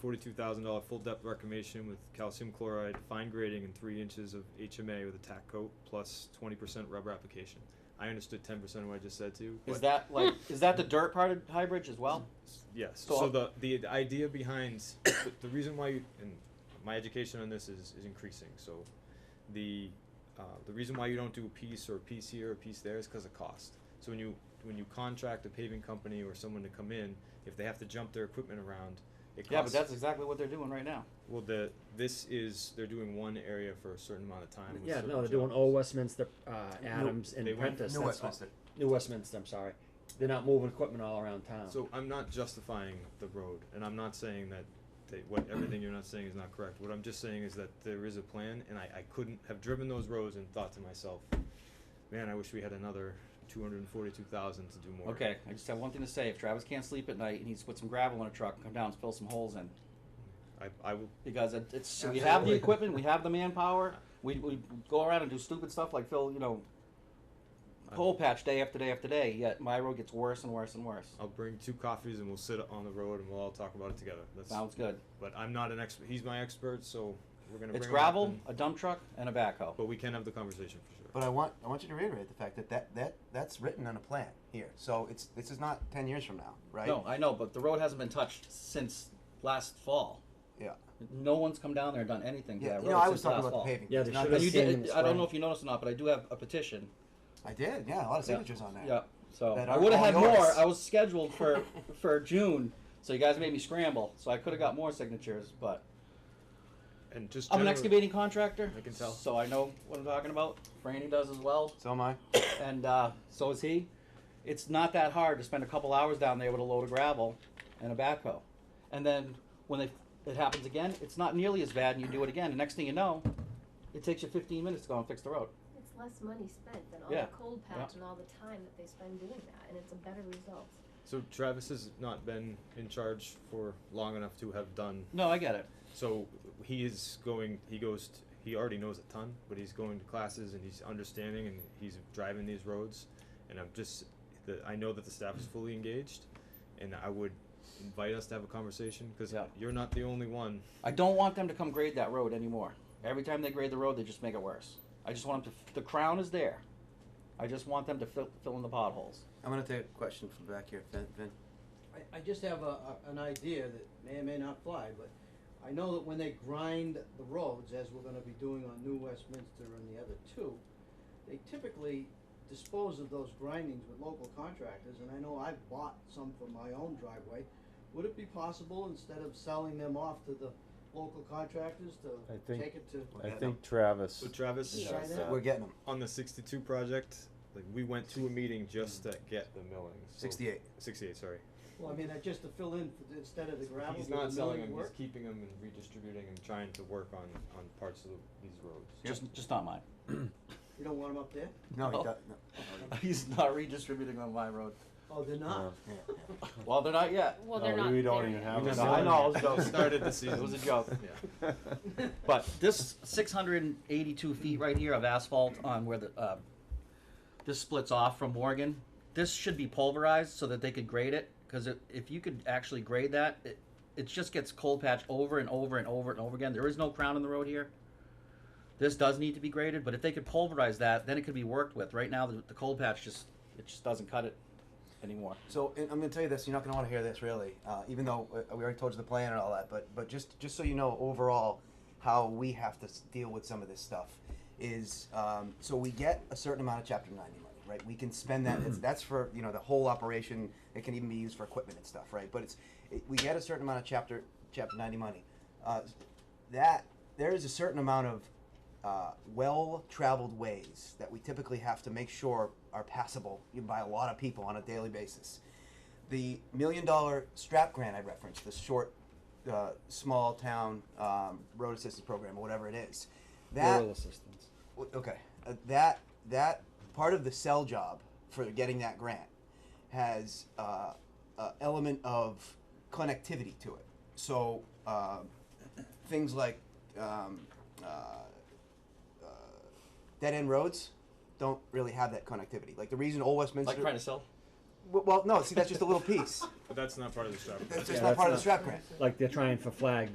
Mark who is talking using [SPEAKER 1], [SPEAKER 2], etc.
[SPEAKER 1] forty-two thousand dollar full depth reclamation with calcium chloride, fine grading, and three inches of HMA with a tack coat, plus twenty percent rubber application. I understood ten percent of what I just said to you.
[SPEAKER 2] Is
[SPEAKER 1] but-
[SPEAKER 2] that like is that the dirt part of High Bridge as well?
[SPEAKER 1] Yes.
[SPEAKER 2] So
[SPEAKER 1] So,
[SPEAKER 2] I'll-
[SPEAKER 1] the, the the idea behind the, the reason why you, and my education on this is, is increasing. So the uh, the reason why you don't do a piece or a piece here or a piece there is because of cost. So when you when you contract a paving company or someone to come in, if they have to jump their equipment around, it costs.
[SPEAKER 2] Yeah, but that's exactly what they're doing right now.
[SPEAKER 1] well. The this is they're doing one area for a certain amount of time. with
[SPEAKER 3] Yeah,
[SPEAKER 1] certain
[SPEAKER 3] no, they're doing
[SPEAKER 1] jobs.
[SPEAKER 3] Old Westminster, uh, Adams,
[SPEAKER 1] they
[SPEAKER 3] and
[SPEAKER 1] went-
[SPEAKER 3] Prentice.
[SPEAKER 4] New
[SPEAKER 3] that's what-
[SPEAKER 4] Westminster.
[SPEAKER 3] New Westminster, I'm sorry. They're not moving equipment all around town.
[SPEAKER 1] So I'm not justifying the road, and I'm not saying that they, what, everything you're not saying is not correct. What I'm just saying is that there is a plan, and I, I couldn't have driven those roads and thought to myself, man, I wish we had another two hundred and forty-two thousand to do more.
[SPEAKER 2] Okay, I just have one thing to say. If Travis can't sleep at night, he needs to put some gravel in a truck and come down and fill some holes in.
[SPEAKER 1] I, I will,
[SPEAKER 2] Because it, it's we have the
[SPEAKER 4] Absolutely.
[SPEAKER 2] equipment, we have the manpower. We, we go around and do stupid stuff like Phil, you know, hole patch day after day after day. Yet my road gets worse and worse and worse.
[SPEAKER 1] I'll bring two coffees and we'll sit on the road and we'll all talk about it together. That's,
[SPEAKER 2] Sounds good.
[SPEAKER 1] but I'm not an expert, he's my expert, so we're gonna bring
[SPEAKER 2] It's
[SPEAKER 1] him up
[SPEAKER 2] gravel,
[SPEAKER 1] and-
[SPEAKER 2] a dump truck, and a backhoe.
[SPEAKER 1] But we can have the conversation for sure.
[SPEAKER 4] But I want I want you to reiterate the fact that, that, that that's written on a plan here. So it's this is not ten years from now, right?
[SPEAKER 2] No, I know, but the road hasn't been touched since last fall.
[SPEAKER 4] Yeah.
[SPEAKER 2] No one's come down there and done anything to
[SPEAKER 4] Yeah.
[SPEAKER 2] that
[SPEAKER 4] You
[SPEAKER 2] road
[SPEAKER 4] know, I
[SPEAKER 2] since
[SPEAKER 4] was talking
[SPEAKER 2] last
[SPEAKER 4] about
[SPEAKER 2] fall.
[SPEAKER 4] the paving.
[SPEAKER 3] Yeah,
[SPEAKER 4] It's
[SPEAKER 3] they
[SPEAKER 4] not
[SPEAKER 3] should
[SPEAKER 2] Now,
[SPEAKER 3] have
[SPEAKER 4] this-
[SPEAKER 2] you
[SPEAKER 3] seen
[SPEAKER 2] did,
[SPEAKER 3] them
[SPEAKER 2] I don't
[SPEAKER 3] spray.
[SPEAKER 2] know if you noticed or not, but I do have a petition.
[SPEAKER 4] I did, yeah, a lot of
[SPEAKER 2] Yeah.
[SPEAKER 4] signatures on that.
[SPEAKER 2] Yeah, so
[SPEAKER 4] That
[SPEAKER 2] I
[SPEAKER 4] aren't
[SPEAKER 2] would have
[SPEAKER 4] all
[SPEAKER 2] had more.
[SPEAKER 4] yours.
[SPEAKER 2] I was scheduled for for June, so you guys made me scramble. So I could have got more signatures, but
[SPEAKER 1] And just
[SPEAKER 2] I'm an
[SPEAKER 1] generally-
[SPEAKER 2] excavating contractor.
[SPEAKER 1] I can tell.
[SPEAKER 2] So I know what I'm talking about. Franny does as well,
[SPEAKER 4] So am I.
[SPEAKER 2] and uh, so is he. It's not that hard to spend a couple hours down there with a load of gravel and a backhoe, and then when they, it happens again, it's not nearly as bad, and you do it again. The next thing you know, it takes you 15 minutes to go and fix the road.
[SPEAKER 5] It's less money spent than all
[SPEAKER 2] Yeah.
[SPEAKER 5] the cold patch
[SPEAKER 2] Yeah.
[SPEAKER 5] and all the time that they spend doing that, and it's a better result.
[SPEAKER 1] So Travis has not been in charge for long enough to have done
[SPEAKER 2] No, I get it.
[SPEAKER 1] So he is going. He goes. t he already knows a ton, but he's going to classes and he's understanding and he's driving these roads. And I'm just. The, I know that the staff is fully engaged, and I would invite us to have a conversation because
[SPEAKER 2] Yeah.
[SPEAKER 1] you're not the only one.
[SPEAKER 2] I don't want them to come grade that road anymore. Every time they grade the road, they just make it worse. I just want them to. The crown is there. I just want them to fill, fill in the potholes.
[SPEAKER 4] I'm gonna take a question from back here, Vin. Vin.
[SPEAKER 6] I, I just have a, a, an idea that may or may not fly, but I know that when they grind the roads, as we're gonna be doing on New Westminster and the other two, they typically dispose of those grindings with local contractors, and I know I've bought some for my own driveway. Would it be possible, instead of selling them off to the local contractors,
[SPEAKER 7] I
[SPEAKER 6] to
[SPEAKER 7] think-
[SPEAKER 6] take it to?
[SPEAKER 7] I think Travis.
[SPEAKER 1] So Travis,
[SPEAKER 6] Yeah. Try that.
[SPEAKER 4] We're getting them.
[SPEAKER 1] on the 62 project, like we went to a meeting just to get the milling. So-
[SPEAKER 4] 68.
[SPEAKER 1] 68. Sorry.
[SPEAKER 6] Well, I mean, uh, just to fill in, for the- instead of the gravel.
[SPEAKER 1] he's
[SPEAKER 6] with
[SPEAKER 1] not
[SPEAKER 6] the
[SPEAKER 1] selling
[SPEAKER 6] milling
[SPEAKER 1] them.
[SPEAKER 6] work?
[SPEAKER 1] He's keeping them and redistributing and trying to work on on parts of the, these roads.
[SPEAKER 2] Just, just not mine.
[SPEAKER 6] You don't want them up there?
[SPEAKER 4] No, he
[SPEAKER 2] Oh.
[SPEAKER 4] doesn't. No.
[SPEAKER 2] He's not redistributing on my road.
[SPEAKER 6] Oh, they're not?
[SPEAKER 4] Yeah, yeah.
[SPEAKER 2] Well, they're not yet.
[SPEAKER 8] Well,
[SPEAKER 7] No,
[SPEAKER 8] they're not.
[SPEAKER 7] we don't
[SPEAKER 8] there
[SPEAKER 7] even
[SPEAKER 8] yet.
[SPEAKER 7] have
[SPEAKER 1] We
[SPEAKER 7] a
[SPEAKER 1] just-
[SPEAKER 2] I know, I was
[SPEAKER 7] sign.
[SPEAKER 2] joking.
[SPEAKER 1] Started the season.
[SPEAKER 2] It was a joke.
[SPEAKER 1] Yeah.
[SPEAKER 2] But this 682 feet right here of asphalt on where the uh, this splits off from Morgan, this should be pulverized so that they could grade it. Because if you could actually grade that, it, it just gets cold patched over and over and over and over again. There is no crown in the road here. This does need to be graded, but if they could pulverize that, then it could be worked with. Right now, the, the cold patch just it just doesn't cut it anymore.
[SPEAKER 4] So and I'm going to tell you this. You're not going to want to hear this, really. Uh, even though uh, we already told you the plan and all that, but but just just so you know, overall, how we have to s- deal with some of this stuff is um, so we get a certain amount of Chapter 90 money, right? We can spend that. It's, that's for you know the whole operation. It can even be used for equipment and stuff, right? But it's it, we get a certain amount of Chapter Chapter 90 money. Uh, that there is a certain amount of uh, well-traveled ways that we typically have to make sure are passable by a lot of people on a daily basis. The million-dollar strap grant I referenced, the short, uh, small-town um, road assistance program, or whatever it is, that
[SPEAKER 3] Rural assistance.
[SPEAKER 4] w- okay, uh, that that part of the sell job for getting that grant has uh, a element of connectivity to it. So um things like um, uh, dead end roads don't really have that connectivity. Like the reason Old Westminster,
[SPEAKER 2] Like trying to sell.
[SPEAKER 4] w- well, no, see, that's just a little piece.
[SPEAKER 1] But that's not part of the strategy.
[SPEAKER 4] That's
[SPEAKER 3] Yeah,
[SPEAKER 4] just not part of the
[SPEAKER 3] that's
[SPEAKER 4] strap grant.
[SPEAKER 3] Like they're trying for flag,